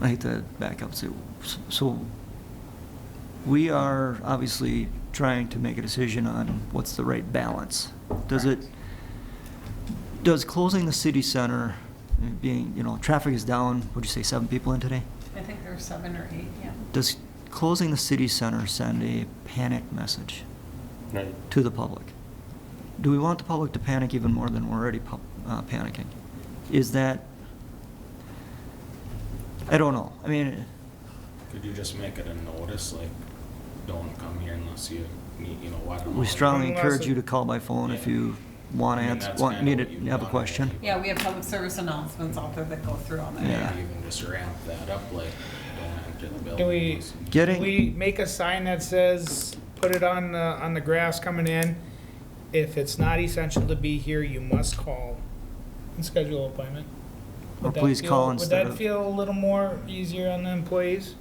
I hate to back up, so, so we are obviously trying to make a decision on what's the right balance. Does it, Correct. does closing the city center, uh, being, you know, traffic is down, would you say seven people in today? I think there were seven or eight, yeah. Does closing the city center send a panic message Right. to the public? Do we want the public to panic even more than we're already pub- uh, panicking? Is that, I don't know. I mean, Could you just make it a notice, like, don't come here unless you need, you know, why don't? we strongly Unless encourage it- you to call by phone if Yeah. you want I mean, ans that's want, kinda need what it, you have a want. question. Yeah, we have public service announcements out there that go through all that. Yeah. Maybe even just ramp that up, like, don't enter the building. Can we, unless- Getting- can we make a sign that says, put it on, the on the grass coming in? If it's not essential to be here, you must call and schedule an appointment. Or Would that please feel- call instead Would that of, feel a little more easier on the employees,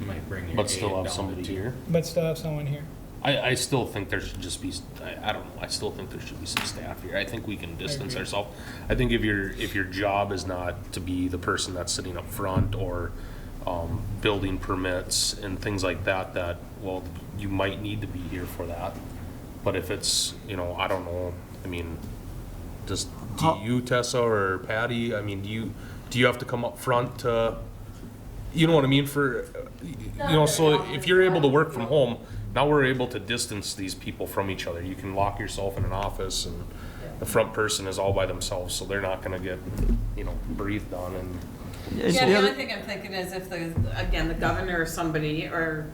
You Might bring your But still aide have down somebody to the- here. but still have someone here? I, I still think there should just be, I, I don't know, I still think there should be some staff here. I think we can distance agree. ourselves. I think if your, if your job is not to be the person that's sitting up front or, um, building permits and things like that, that, well, you might need to be here for that. But if it's, you know, I don't know, I mean, just, do How- you, Tessa or Patty, I mean, do you, do you have to come up front to, you know what I mean, for, you know, so if you're able to work from home, now we're able to distance these people from each other. You can lock yourself in an office and the front person is all by themselves, so they're not gonna get, you know, breathed on and, Is Yeah, the the other- only thing I'm thinking is if the, again, the governor or somebody, or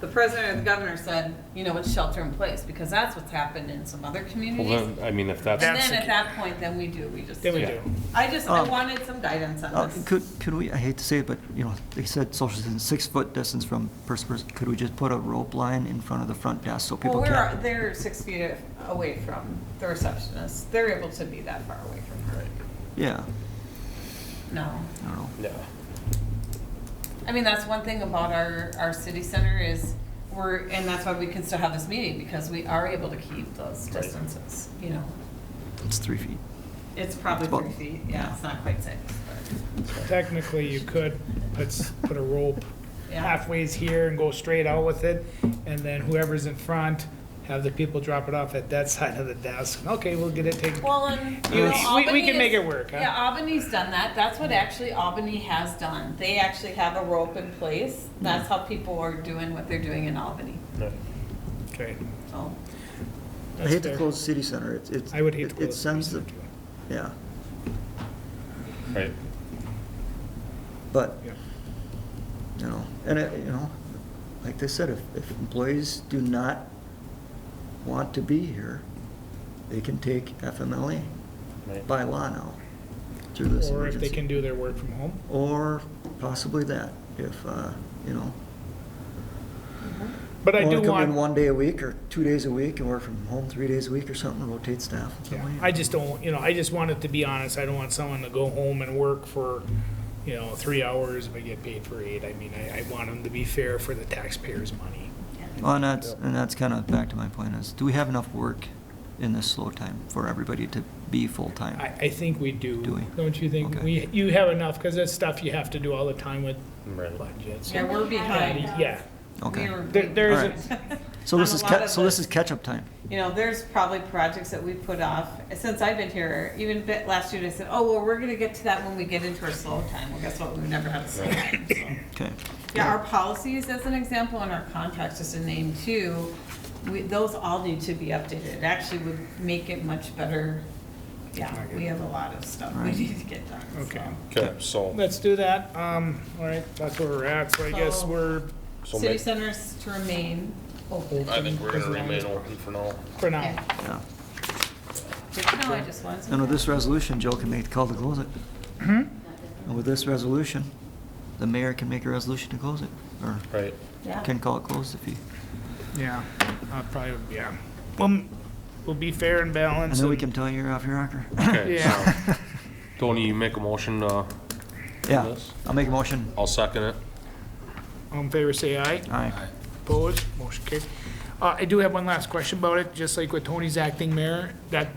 the president or the governor said, you know, it's shelter in place, because that's what's happened in some other well, communities. then, I mean, if And that's, then at that point, then we do, we just. Then we Yeah. do. I just, I Um, wanted some guidance Uh, on this. Could, could we, I hate to say it, but, you know, they said social distance, six-foot distance from person, to person. could we just put a rope line in front of the front desk so Well, people we're, can't? they're six feet away from the receptionist. They're able to be that far away from her. Yeah, No. I don't know. yeah. I mean, that's one thing about our, our city center is we're, and that's why we can still have this meeting, because we are able to keep those Right. distances, you know. It's three feet. It's probably Well, three feet, yeah, it's not quite six, but, Technically, you could, let's put a rope yeah. halfway's here and go straight out with it, and then whoever's in front, have the people drop it off at that side of the desk. Okay, we'll get it taken. Well, and, you You- know, we- we Albany can make is- it work, huh? Yeah, Albany's done that, that's what actually Albany has done. They actually have a rope in place, that's how people are doing what they're doing in Albany, Okay. so. I hate that's to fair. close city center, it's, it's. I would hate to it- close. It sends, the- research. yeah, Right. but, Yeah. you know, and it, you know, like they said, if, if employees do not want to be here, they can take FMLA Right. by law now through this Or if they emergency. can do their work from home. Or possibly that, if, uh, you know. Mm-hmm. But I Only do come in want, one day a week or two days a week and work from home three days a week or something, rotate staff. in some yeah, way. I just don't, you know, I just want it to be honest. I don't want someone to go home and work for, you know, three hours but get paid for eight. I mean, I, I want them to be fair for the taxpayers' money. Well, and that's, and that's kind of back to my point is, do we have enough work in this slow time for everybody to be I, full-time? I think we do. Do we? Don't you think? Okay. We, you have enough, because that's stuff you have to do all the time with Right. budgets. Yeah, we're behind. Yeah, Okay. We were There- there behind. is So this On is, a lot ca- of so this the- is catch-up time. you know, there's probably projects that we put off since I've been here. Even bit last year, I said, "Oh well, we're going to get to that when we get into our slow time." Well, guess what? We've never had a slow time. So. Okay. Yeah, our policies, as an example, and our contracts, as a name too, we, those all need to be updated. It actually would make it much better. Yeah, we have a lot of stuff we Right. need to get done. so. okay. Okay, so, Let's do that. Um, all right, that's where we're at, so I guess So- we're, so City make, centers to remain open. I think we're as gonna long as- remain open for now. for now. Yeah. Yeah. Good to know, I just wanted to. And with this resolution, Joe can make the call to close it. And with this resolution, the mayor can make a resolution to close it, or Right. Yeah. can call it closed if he, Yeah, I probably, would- yeah. Well, we'll be fair and and balanced. then we can and- tell you're off your rocker. Okay, so, Yeah, Tony, you make a motion, uh, Yeah, Yes. I'll make a motion. I'll second it. all in favor, say aye. Aye. Opposed, motion carries. Uh, I do have one last question about it, just like with Tony's acting mayor, that